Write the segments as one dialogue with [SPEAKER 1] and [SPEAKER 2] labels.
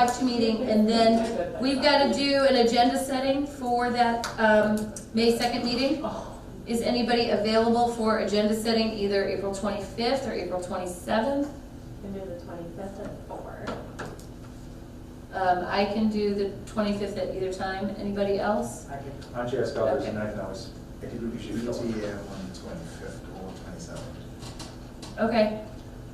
[SPEAKER 1] Watch meeting, and then we've got to do an agenda setting for that um, May 2nd meeting. Is anybody available for agenda setting either April 25th or April 27th?
[SPEAKER 2] Can do the twenty-fifth at four.
[SPEAKER 1] Um, I can do the 25th at either time. Anybody else?
[SPEAKER 3] Why don't you ask others
[SPEAKER 1] Okay.
[SPEAKER 3] and I can always, I can do the
[SPEAKER 4] BTA E on the twenty-fifth or twenty-seventh.
[SPEAKER 1] Okay,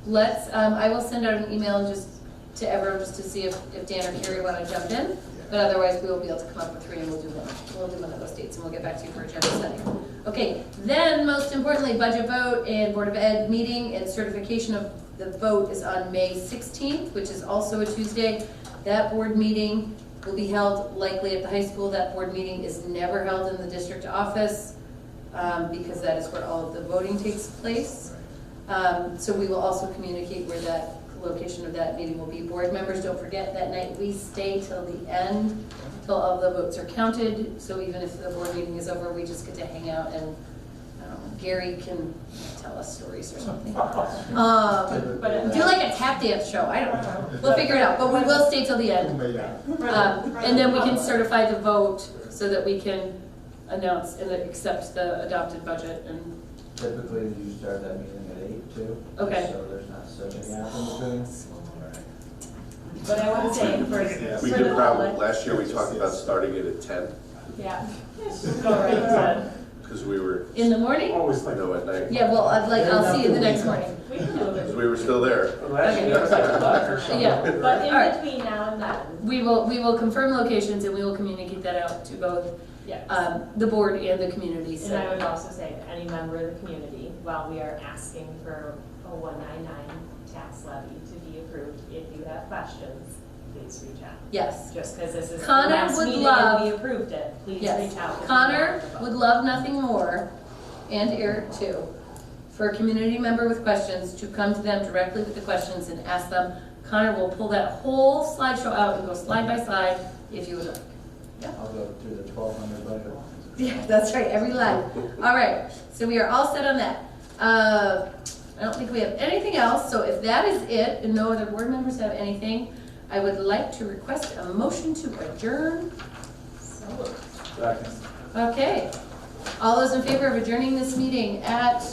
[SPEAKER 1] let's, um, I will send out an email just to everyone, just to see if, if Dan or Carrie want to jump in. But otherwise, we will be able to come up with three and we'll do one, we'll do one of those dates and we'll get back to you for agenda setting. Okay, then most importantly, budget vote and Board of Ed meeting and certification of the vote is on May sixteenth, which is also a Tuesday. That board meeting will be held likely at the high school. That board meeting is never held in the district office um, because that is where all of the voting takes place. Um, So we will also communicate where that, location of that meeting will be. Board members, don't forget, that night we stay till the end, till all the votes are counted. So even if the board meeting is over, we just get to hang out and um, Gary can tell us stories or something. Um,
[SPEAKER 2] But
[SPEAKER 1] Do like a tap dance show, I don't know. We'll figure it out, but we will stay till the end. Um, And then we can certify the vote so that we can announce and accept the adopted budget and,
[SPEAKER 5] Typically, you start that meeting at eight too.
[SPEAKER 1] Okay.
[SPEAKER 5] So there's not so many applicants
[SPEAKER 2] But I would say for.
[SPEAKER 6] We
[SPEAKER 2] for
[SPEAKER 6] did
[SPEAKER 2] the
[SPEAKER 6] probably,
[SPEAKER 2] public-
[SPEAKER 6] last year, we talked about starting it at ten,
[SPEAKER 2] Yeah. Go right to,
[SPEAKER 6] because we were,
[SPEAKER 1] in the morning?
[SPEAKER 3] Always
[SPEAKER 6] you
[SPEAKER 3] like.
[SPEAKER 6] know, at night,
[SPEAKER 1] Yeah, well, I'd like, I'll see you the next morning.
[SPEAKER 2] we can move
[SPEAKER 6] because
[SPEAKER 2] it.
[SPEAKER 6] we were still there.
[SPEAKER 3] Last year,
[SPEAKER 1] Okay.
[SPEAKER 3] that was like a buck or something.
[SPEAKER 1] Yeah.
[SPEAKER 2] But
[SPEAKER 1] All right.
[SPEAKER 2] in between now and then,
[SPEAKER 1] We will, we will confirm locations and we will communicate that out to both,
[SPEAKER 2] yeah.
[SPEAKER 1] um, the board and the community,
[SPEAKER 2] And I
[SPEAKER 1] so.
[SPEAKER 2] would also say to any member of the community, while we are asking for a one nine nine tax levy to be approved, if you have questions, please reach out.
[SPEAKER 1] Yes.
[SPEAKER 2] Just because this is the
[SPEAKER 1] Connor
[SPEAKER 2] last
[SPEAKER 1] would
[SPEAKER 2] meeting
[SPEAKER 1] love-
[SPEAKER 2] and we approved it, please
[SPEAKER 1] Yes.
[SPEAKER 2] reach out.
[SPEAKER 1] Connor would love nothing more, and Eric too, for a community member with questions to come to them directly with the questions and ask them. Connor will pull that whole slideshow out and go slide by slide if you would like.
[SPEAKER 5] I'll go through the twelve hundred budget lines.
[SPEAKER 1] Yeah, that's right, every line. All right, so we are all set on that. Uh, I don't think we have anything else, so if that is it, and no other board members have anything, I would like to request a motion to adjourn.
[SPEAKER 3] Second.
[SPEAKER 1] Okay. All those in favor of adjourning this meeting at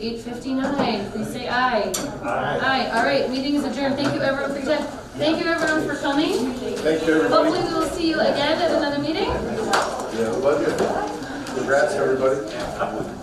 [SPEAKER 1] eight fifty-nine, please say aye.
[SPEAKER 3] Aye.
[SPEAKER 1] Aye, all right, meeting is adjourned. Thank you everyone for your time. Thank you everyone for coming.
[SPEAKER 6] Thank you, everybody.
[SPEAKER 1] Hopefully we will see you again at another meeting.
[SPEAKER 6] Yeah, love you. Congrats, everybody.